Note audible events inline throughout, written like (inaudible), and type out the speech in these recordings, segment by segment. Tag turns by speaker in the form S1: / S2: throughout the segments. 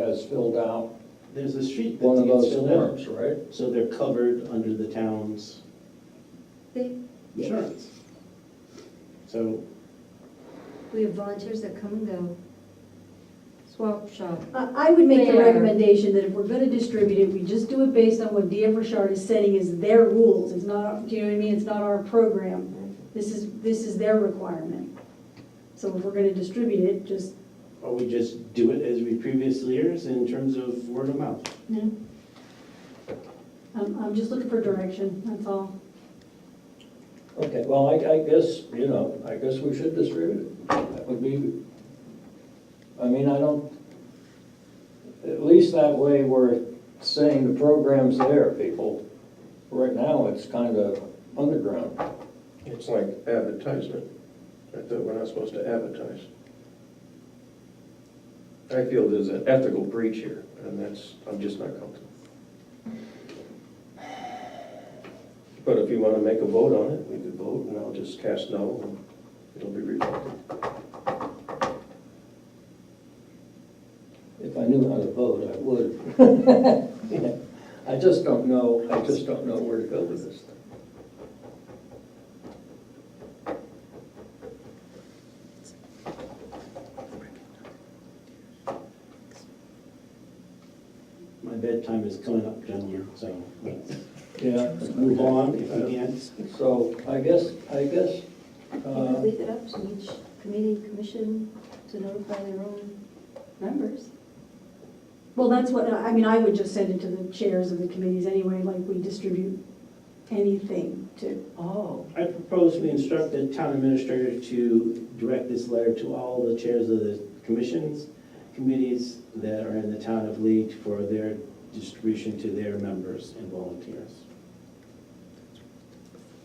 S1: has filled out
S2: There's a sheet
S1: one
S2: that
S1: of those
S2: gets filled out,
S1: forms, right?
S2: so they're covered under the town's
S3: They, yes,
S2: insurance. So,
S3: we have volunteers that come and go. Swap shop,
S4: I I would make the
S3: Fair.
S4: recommendation that if we're gonna distribute it, we just do it based on what DM Richard is setting as their rules. It's not, do you know what I mean? It's not our program. This is, this is their requirement. So if we're gonna distribute it, just,
S2: or we just do it as we previously years in terms of word of mouth.
S4: no. I'm, I'm just looking for direction, that's all.
S1: Okay, well, I, I guess, you know, I guess we should distribute it. That would be, I mean, I don't, at least that way we're saying the program's there, people. Right now, it's kind of underground.
S5: It's like advertisement. I thought we're not supposed to advertise. I feel there's an ethical breach here, and that's, I'm just not comfortable. But if you want to make a vote on it, we could vote, and I'll just cast no, and it'll be rejected.
S1: If I knew how to vote, I would. (laughs) I just don't know, I just don't know where to go with this thing.
S2: My bedtime is coming up, gentlemen, so let's
S1: Yeah.
S2: move on if we can.
S1: So I guess, I guess,
S3: you could
S1: uh,
S3: leave it up to each committee, commission to notify their own members.
S4: Well, that's what, I mean, I would just send it to the chairs of the committees anyway, like we distribute anything to.
S3: Oh.
S2: I propose we instruct the town administrator to direct this letter to all the chairs of the commissions, committees that are in the town of Lee for their distribution to their members and volunteers.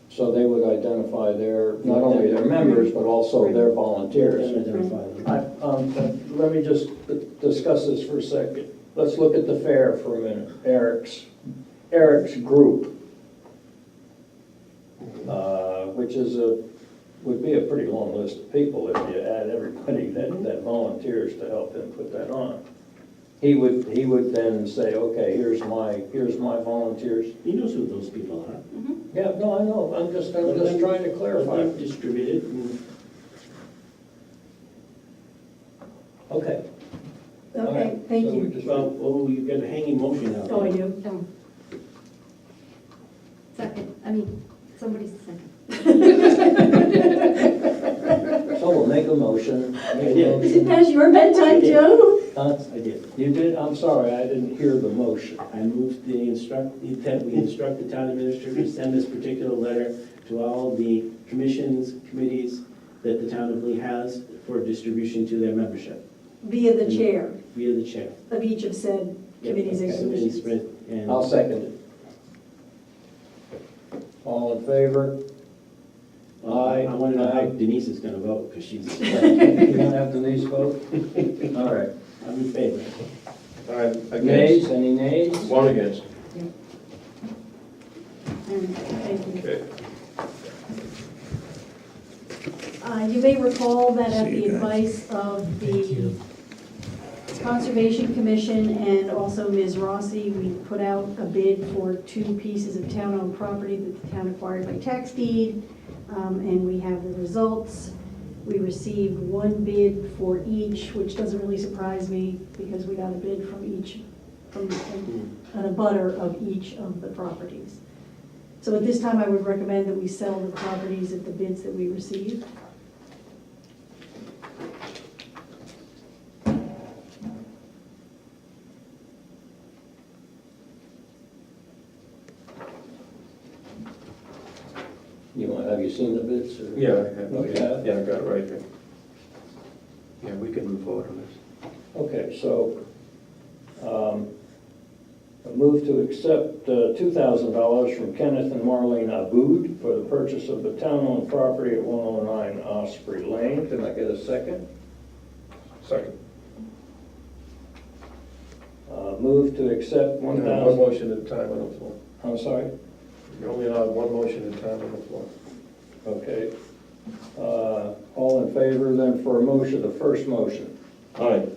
S1: so they would identify their, not only their members, but also their volunteers.
S2: And identify
S1: I-
S2: them.
S1: um, Let me just discuss this for a second. Let's look at the fair for a minute, Eric's, Eric's group, uh, which is a, would be a pretty long list of people if you add everybody that, that volunteers to help him put that on. He would, he would then say, okay, here's my, here's my volunteers.
S2: He knows who those people are.
S1: Yeah, no, I know, I'm just, I'm just trying to clarify.
S2: Let them distribute it and
S1: Okay. all right.
S4: Okay, thank
S1: So we
S4: you.
S1: just-
S2: Well, oh, you've got a hanging motion out there.
S4: Oh, I do. (laughs)
S3: No. Second, I mean, somebody's second.
S1: So we'll make a motion. Make a
S4: Is
S1: motion.
S4: (laughs) it past your bedtime, Joe?
S1: Huh?
S2: I did.
S1: You did, I'm sorry, I didn't hear the motion.
S2: I moved the instruct, that we instruct the town administrator to send this particular letter to all the commissions, committees that the town of Lee has for distribution to their membership
S4: Via the chair
S2: via the chair.
S4: of each of said committees and
S1: okay.
S4: commissions.
S2: And
S1: I'll second it. All in (laughs) favor?
S2: I, I want to know how Denise is going to vote, because she's,
S1: You don't have Denise (laughs) vote? All right.
S2: I'm in favor.
S5: I'm
S1: Nays,
S5: against.
S1: any nays?
S5: One against.
S4: Mm, thank you.
S5: Okay.
S4: Uh, You may recall that at the advice of the Conservation Commission and also Ms. Rossi, we put out a bid for two pieces of town-owned property that the town acquired by tax deed, um, and we have the results. We received one bid for each, which doesn't really surprise me, because we got a bid from each, from a butter of each of the properties. So at this time, I would recommend that we sell the properties at the bids that we received.
S1: You want, have you seen the bids or?
S5: Yeah, I have,
S1: Oh, you have?
S5: yeah, I got it right here. Yeah, we can move forward on this.
S1: Okay, so, um, a move to accept uh, $2,000 from Kenneth and Marlene Aboud for the purchase of the town-owned property at 109 Osprey Lane. Can I get a second?
S5: Second.
S1: Uh, Move to accept
S5: One
S1: 1,000,
S5: motion at a time on the floor.
S1: I'm sorry?
S5: You're only allowed one motion at a time on the floor.
S1: Okay. Uh, All in favor then for a motion, the first motion?
S5: Aye.